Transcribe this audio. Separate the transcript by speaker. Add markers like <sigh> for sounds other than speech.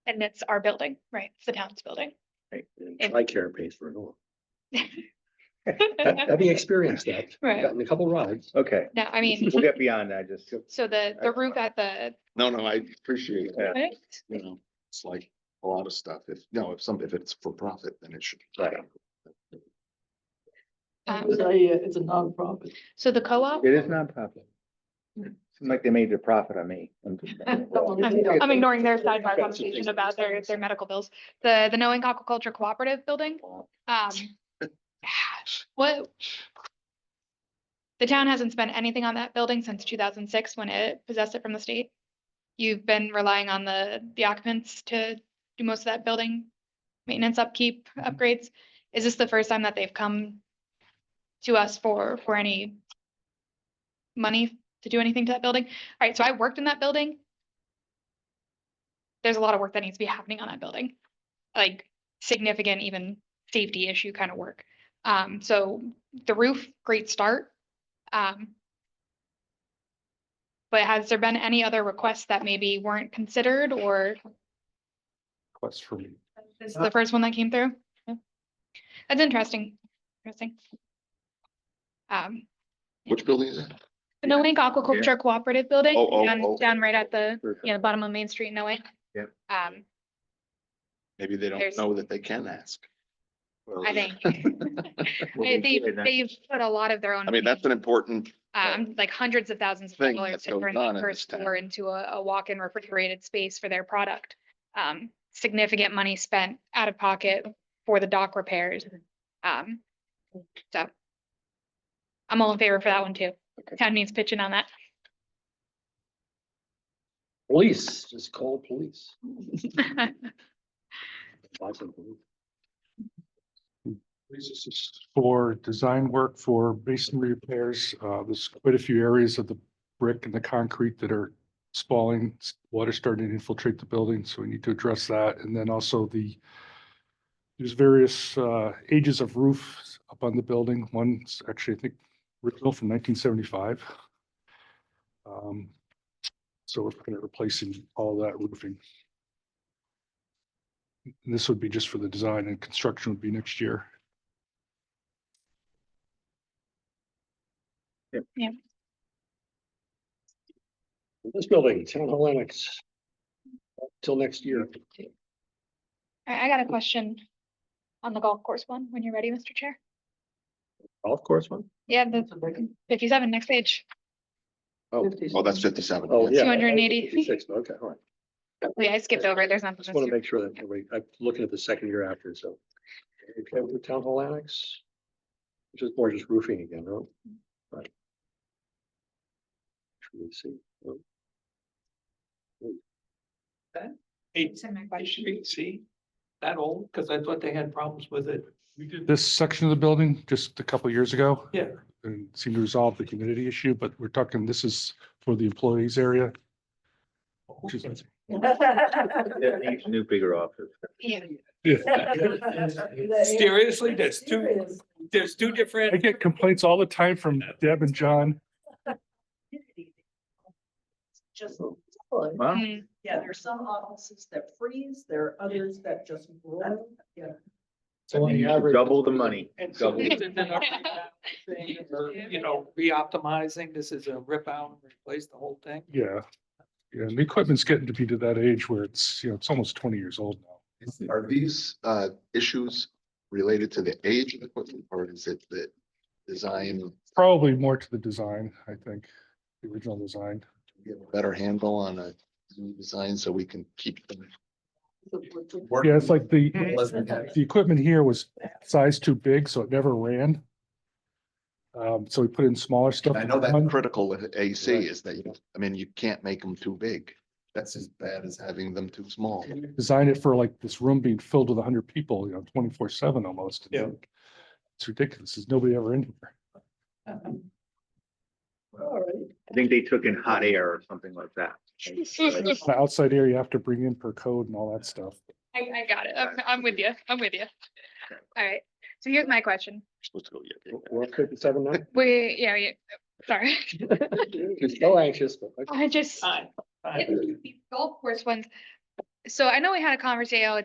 Speaker 1: and it's our building, right? It's the town's building.
Speaker 2: Right, and
Speaker 1: And-
Speaker 2: TRICARE pays for it all. Having experienced that,
Speaker 1: Right.
Speaker 2: gotten a couple rides,
Speaker 3: Okay,
Speaker 1: No, I mean,
Speaker 3: we'll get beyond that, just,
Speaker 1: so the, the roof at the,
Speaker 4: No, no, I appreciate that,
Speaker 1: clinic,
Speaker 4: you know, it's like a lot of stuff. If, no, if some, if it's for profit, then it should.
Speaker 3: Right.
Speaker 1: um,
Speaker 5: It's a, it's a nonprofit.
Speaker 1: so the co-op,
Speaker 3: it is nonprofit. Seems like they made a profit on me. I'm just-
Speaker 1: I'm, I'm ignoring their sidebar
Speaker 4: Expensive
Speaker 1: conversation
Speaker 4: things.
Speaker 1: about their, their medical bills. The, the Knowing Aquaculture Cooperative Building, um, what? The town hasn't spent anything on that building since two thousand six when it possessed it from the state. You've been relying on the, the occupants to do most of that building maintenance, upkeep, upgrades. Is this the first time that they've come to us for, for any money to do anything to that building? All right, so I worked in that building. There's a lot of work that needs to be happening on that building, like significant even safety issue kind of work. Um, so the roof, great start. Um. But has there been any other requests that maybe weren't considered or
Speaker 4: Quest for me.
Speaker 1: this is
Speaker 4: Uh,
Speaker 1: the first one that came through? That's interesting, interesting. Um,
Speaker 4: Which building is it?
Speaker 1: the Noank Aquaculture Cooperative Building,
Speaker 4: Oh, oh,
Speaker 1: down,
Speaker 4: oh.
Speaker 1: down right at the, <laughs>
Speaker 3: Perfect.
Speaker 1: yeah, the bottom of Main Street, Noank.
Speaker 3: Yep.
Speaker 1: Um,
Speaker 4: Maybe they
Speaker 1: There's-
Speaker 4: don't know that they can ask.
Speaker 1: I
Speaker 4: <laughs>
Speaker 1: think, they, they've- they've put a lot of their own.
Speaker 4: I mean, that's an important,
Speaker 1: um, like hundreds of thousands of
Speaker 4: thing
Speaker 1: dollars
Speaker 4: that's
Speaker 1: to
Speaker 4: going
Speaker 1: turn
Speaker 4: on
Speaker 1: that
Speaker 4: in
Speaker 1: first
Speaker 4: this town.
Speaker 1: floor into a, a walk-in refrigerated space for their product. Um, significant money spent out of pocket for the dock repairs. Um, so. I'm all in favor for that one too.
Speaker 3: Okay.
Speaker 1: Town needs pitching on that. <laughs>
Speaker 2: police, just call police. Lots of them.
Speaker 6: This is for design work for masonry repairs. Uh, there's quite a few areas of the brick and the concrete that are spalling. Water starting to infiltrate the building, so we need to address that. And then also the there's various uh ages of roofs up on the building. One's actually, I think, original from nineteen seventy-five. Um, so we're looking at replacing all that roofing. And This would be just for the design and construction would be next year.
Speaker 2: This building, Town Hall Annex. Till next year.
Speaker 1: I, I got a question on the golf course one, when you're ready, Mr. Chair.
Speaker 2: Golf course one?
Speaker 1: Yeah, the
Speaker 5: It's a break.
Speaker 1: fifty-seven, next page.
Speaker 4: oh, oh, that's fifty-seven.
Speaker 2: Oh, yeah.
Speaker 1: 280.
Speaker 2: 56, Okay, all right.
Speaker 1: Oh, Yeah, I skipped over it. There's nothing.
Speaker 2: Just want to
Speaker 1: to
Speaker 2: make sure that, everybody- I'm looking at the second year after, so. Okay, with the Town Hall Annex. Which is more just roofing again, right? Right. Should we see? Oh,
Speaker 5: It's-
Speaker 1: send my
Speaker 5: It
Speaker 1: question.
Speaker 5: should be, see, that old, because I thought they had problems with it.
Speaker 6: We did this section of the building just a couple of years ago.
Speaker 5: Yeah.
Speaker 6: And seemed to resolve the humidity issue, but we're talking, this is for the employees area. which is-
Speaker 3: New bigger office.
Speaker 1: Yeah.
Speaker 5: <laughs> Seriously, that's two, there's two
Speaker 6: I
Speaker 5: different.
Speaker 6: get complaints all the time from Deb and John.
Speaker 7: Just,
Speaker 3: Wow.
Speaker 1: Mm,
Speaker 7: yeah, there are some offices that freeze, there are others that just roll.
Speaker 3: Double the money.
Speaker 5: And so
Speaker 3: Double.
Speaker 5: these have been up and down thing, or, You know, re-optimizing, this is a rip out, and replace the whole thing.
Speaker 6: Yeah. Yeah, and the equipment's getting to be to that age where it's, you know, it's almost twenty years old now.
Speaker 4: Are these uh issues related to the age of the equipment or is it the design, of-
Speaker 6: Probably more to the design, I think, the original design.
Speaker 4: we have a better handle on a new design so we can keep them?
Speaker 6: Yeah, it's like the,
Speaker 7: Mhm.
Speaker 6: the equipment here was sized too big, so it never ran. Um, so we put in smaller stuff.
Speaker 4: I know
Speaker 6: One-
Speaker 4: that's critical with AC
Speaker 6: Right.
Speaker 4: is that, you I mean, you can't make them too big. That's as bad as having them too small.
Speaker 6: designed it for like this room being filled with hundred people, you know, twenty-four seven almost.
Speaker 5: Yeah.
Speaker 6: It's ridiculous. There's nobody ever in here.
Speaker 5: All right.
Speaker 3: I think they took in hot air or something like that.
Speaker 1: <laughs>
Speaker 6: The outside air you have to bring in per code and all that stuff.
Speaker 1: I, I got it. I'm, I'm with you. I'm with you. All right. So here's my question.
Speaker 4: Supposed to go, yeah, yeah, yeah.
Speaker 2: We're at fifty-seven now?
Speaker 1: <laughs> We, yeah, yeah, sorry. <laughs>
Speaker 2: You're so anxious, but. okay.
Speaker 1: I just,
Speaker 5: Fine, fine.
Speaker 1: golf course ones, so I know we had a conversation